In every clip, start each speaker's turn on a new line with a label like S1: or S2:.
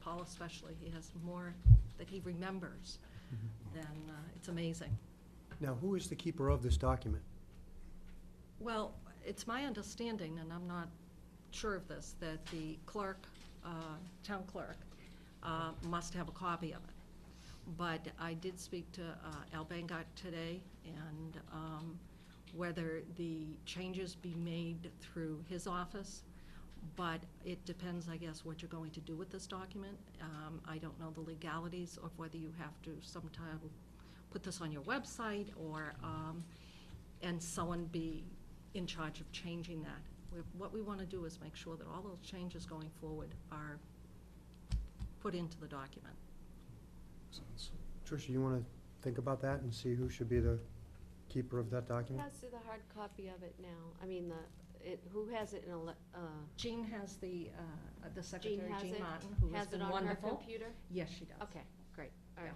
S1: Paul especially, he has more that he remembers than, uh, it's amazing.
S2: Now, who is the keeper of this document?
S1: Well, it's my understanding, and I'm not sure of this, that the clerk, uh, town clerk, uh, must have a copy of it. But I did speak to uh, Al Bangott today, and um, whether the changes be made through his office, but it depends, I guess, what you're going to do with this document. Um, I don't know the legalities of whether you have to sometime put this on your website or, um, and someone be in charge of changing that. We- What we want to do is make sure that all those changes going forward are put into the document.
S3: Sounds-
S2: Tricia, you want to think about that and see who should be the keeper of that
S4: Who
S2: document?
S4: has the hard copy of it now? I mean, the, it, who has it in a, le- uh,
S1: Jean has the, uh, the
S4: Jean
S1: secretary,
S4: has
S1: Jean
S4: it?
S1: Martin, who has
S4: Has it
S1: been
S4: on her
S1: wonderful.
S4: computer?
S1: Yes, she does.
S4: Okay, great, all right.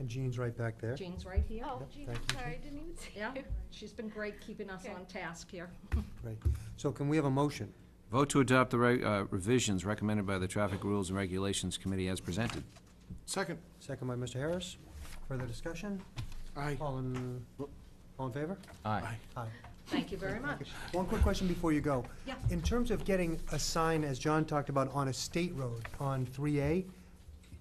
S2: And Jean's right back there.
S1: Jean's right here.
S4: Oh,
S2: Yep,
S4: gee,
S2: thank you,
S4: sorry,
S2: Jean.
S4: didn't even see
S1: Yeah,
S4: you.
S1: she's been great keeping us
S4: Okay.
S1: on task here.
S2: Right. So can we have a motion?
S5: Vote to adopt the re- uh, revisions recommended by the Traffic Rules and Regulations Committee as presented.
S3: Second,
S2: Second by Mr. Harris. Further discussion?
S3: aye.
S2: All in, all in favor?
S5: Aye.
S3: Aye.
S2: Aye.
S1: Thank you very much.
S2: One quick question before you go.
S1: Yeah.
S2: In terms of getting a sign, as John talked about, on a state road, on 3A,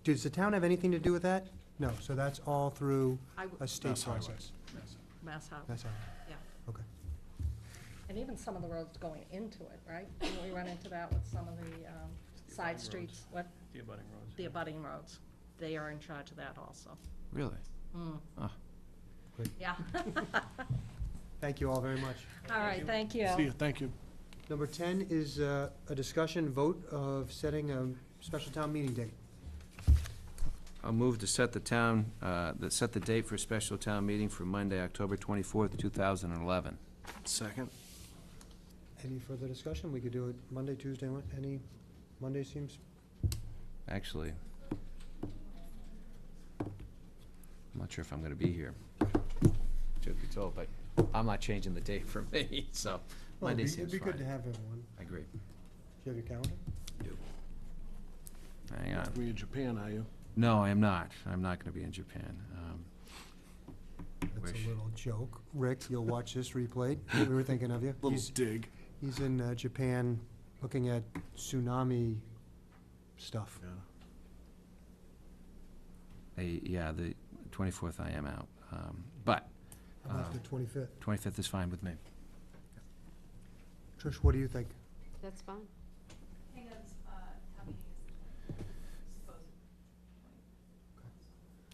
S2: does the town have anything to do with that? No, so that's all through
S1: I w-
S2: a state
S3: Mass Highway.
S2: process.
S1: Mass Highway,
S2: That's all.
S1: yeah.
S2: Okay.
S1: And even some of the roads going into it, right? Didn't We run into that with some of the um, side streets, what,
S6: The abutting roads.
S1: the abutting roads. They are in charge of that also.
S5: Really?
S1: Mm.
S5: Ah.
S1: Yeah.
S2: Thank you all very much.
S1: All right, thank you.
S3: See you, thank you.
S2: Number 10 is uh, a discussion vote of setting a special town meeting date.
S5: I'll move to set the town, uh, that set the date for a special town meeting for Monday, October 24th, 2011.
S3: Second.
S2: Any further discussion? We could do it Monday, Tuesday, Wed- any, Monday seems,
S5: Actually, I'm not sure if I'm going to be here. Truth be told, but I'm not changing the date for me, so
S2: well, it'd
S5: Monday
S2: be-
S5: seems
S2: it'd be good to
S5: fine.
S2: have everyone.
S5: I agree.
S2: Do you have your calendar?
S5: Hang on.
S3: We in Japan, are you?
S5: No, I am not. I'm not going to be in Japan. Um,
S2: That's
S5: Wish.
S2: a little joke. Rick, you'll watch this replayed. We were thinking of you.
S3: Little
S2: He's-
S3: dig.
S2: He's in uh, Japan looking at tsunami stuff.
S3: Yeah.
S5: I- Yeah, the 24th I am out, Um, but
S2: How about the
S5: Uh,
S2: 25th?
S5: 25th is fine with me.
S2: Trish, what do you think?
S4: That's fine.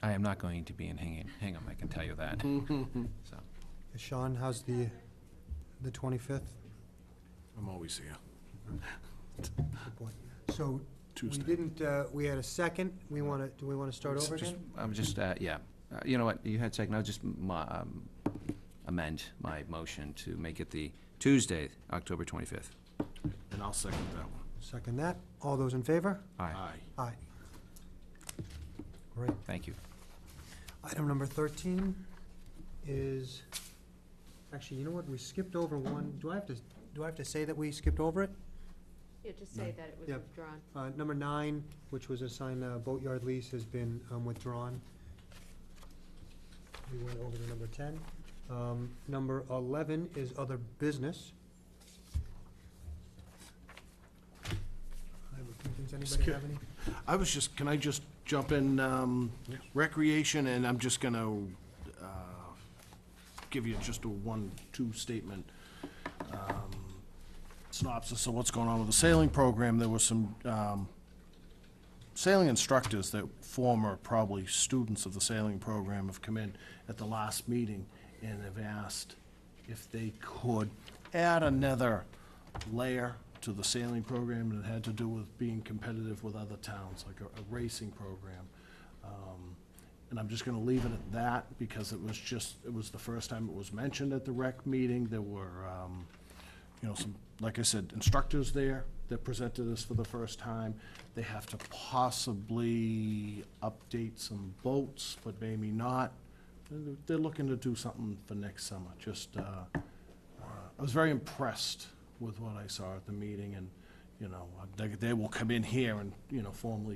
S5: I am not going to be in Hingham, Hingham, I can tell you that, so.
S2: Sean, how's the, the 25th?
S3: I'm always here,
S2: Good point. So we
S3: Tuesday.
S2: didn't, uh, we had a second. We want to, do we want to start over
S5: Just-
S2: again?
S5: I'm just, uh, yeah, Uh, you know what, you had second, I'll just mo- um, amend my motion to make it the Tuesday, October 25th.
S3: And I'll second that one.
S2: Second that. All those in favor?
S5: Aye,
S3: Aye.
S2: Aye. Great.
S5: thank you.
S2: Item number thirteen is, actually, you know what, we skipped over one. Do I have to, do I have to say that we skipped over it?
S4: Yeah, just say that it was
S2: Yep.
S4: withdrawn.
S2: Uh, number nine, which was assigned uh, boatyard lease, has been um, withdrawn. We went over to number ten. Um, number eleven is other business. I have a few things. Anybody
S3: Skip.
S2: have any?
S3: I was just, can I just jump in, um, recreation, and I'm just gonna, uh, give you just a one, two statement, um, synopsis of what's going on with the sailing program. There was some, um, sailing instructors that former probably students of the sailing program have come in at the last meeting and have asked if they could add another layer to the sailing program and it had to do with being competitive with other towns, like a, a racing program. Um, and I'm just gonna leave it at that because it was just, it was the first time it was mentioned at the rec meeting. There were, um, you know, some, like I said, instructors there that presented this for the first time. They have to possibly update some boats, but maybe not. They're- They're looking to do something for next summer, just, uh, uh, I was very impressed with what I saw at the meeting and, you know, they, they will come in here and, you know, formally